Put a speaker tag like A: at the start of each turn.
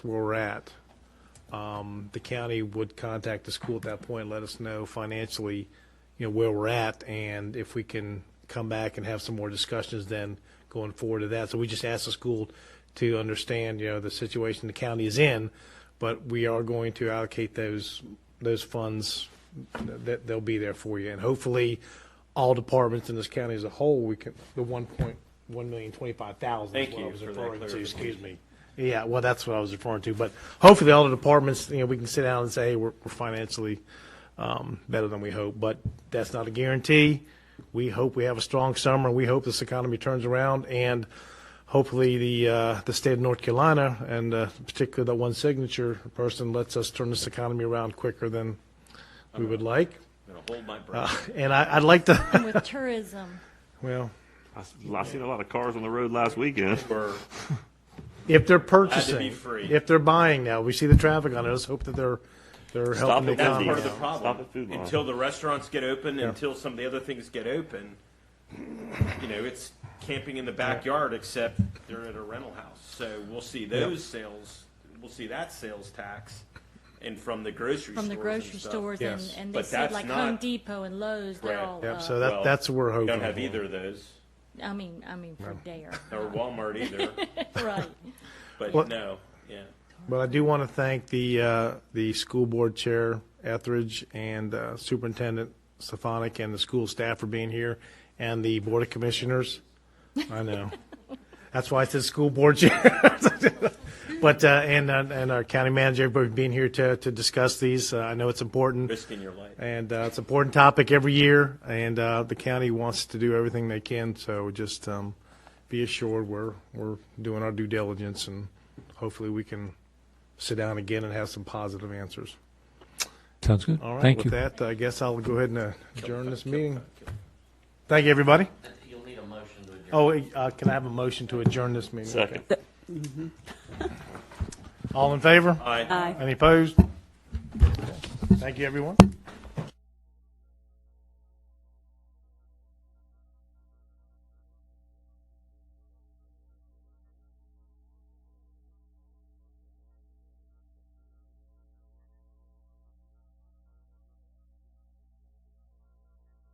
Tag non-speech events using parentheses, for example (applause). A: where we're at, um, the county would contact the school at that point, let us know financially, you know, where we're at, and if we can come back and have some more discussions then going forward to that. So we just asked the school to understand, you know, the situation the county is in, but we are going to allocate those, those funds, that, they'll be there for you. And hopefully, all departments in this county as a whole, we can, the one point, one million twenty-five thousand is
B: Thank
A: what I
B: you
A: was
B: for that
A: referring to,
B: clarification.
A: excuse me. Yeah, well, that's what I was referring to, but hopefully all the departments, you know, we can sit down and say, hey, we're, we're financially, um, better than we hope, but that's not a guarantee. We hope we have a strong summer, we hope this economy turns around, and hopefully the, uh, the state of North Carolina, and, uh, particularly that one signature person lets us turn this economy around quicker than we would like.
B: I'm gonna hold my breath.
A: Uh, And I, I'd like to, (laughs)
C: with tourism.
A: well,
D: I, s- I seen a lot of cars on the road last weekend.
B: We're-
A: If they're
B: to be
A: purchasing,
B: free.
A: if they're buying now, we see the traffic on it, let's hope that they're, they're helping the
D: it, that's
B: That's
A: economy.
B: part of the
D: Yeah.
B: problem.
D: Stop at food line.
B: Until the restaurants get open, until some of the other things get open, you know, it's camping in the backyard, except they're at a rental house. So we'll see those sales, we'll see that sales tax and from the grocery
C: From
B: stores
C: the
B: and
C: grocery
B: stuff.
C: stores and,
A: Yes.
C: and they
B: But
C: said
B: that's
C: like
B: not-
C: Home Depot and Lowe's, they're
B: Right.
C: all,
A: Yep, so
C: uh,
B: Well,
A: that, that's what we're
B: We
A: hoping.
B: Don't have
A: for.
B: either of those,
C: I mean, I mean for
B: (laughs)
C: Dare,
B: or Walmart either,
C: (laughs) right.
A: Well-
B: but no, yeah.
A: But I do want to thank the, uh, the school board chair Etheridge and uh, Superintendent Stefanik and the school staff for being here and the board of commissioners. I know.
B: (laughs)
A: That's why I said school board chair. (laughs) But, uh, and, uh, and our county manager, everybody being here to, to discuss these. Uh, I know it's important.
B: Risking your life.
A: And uh, it's an important topic every year, and uh, the county wants to do everything they can, so just um, be assured we're, we're doing our due diligence, and hopefully we can sit down again and have some positive answers.
E: Sounds good.
A: All right,
E: Thank
A: with
E: you.
A: that, I guess I'll go ahead and uh, adjourn this meeting. Thank you, everybody.
F: You'll need a motion to adjourn.
A: Oh, uh, can I have a motion to adjourn this meeting?
D: Second.
A: All in favor?
B: Aye.
A: Any opposed? Thank you, everyone.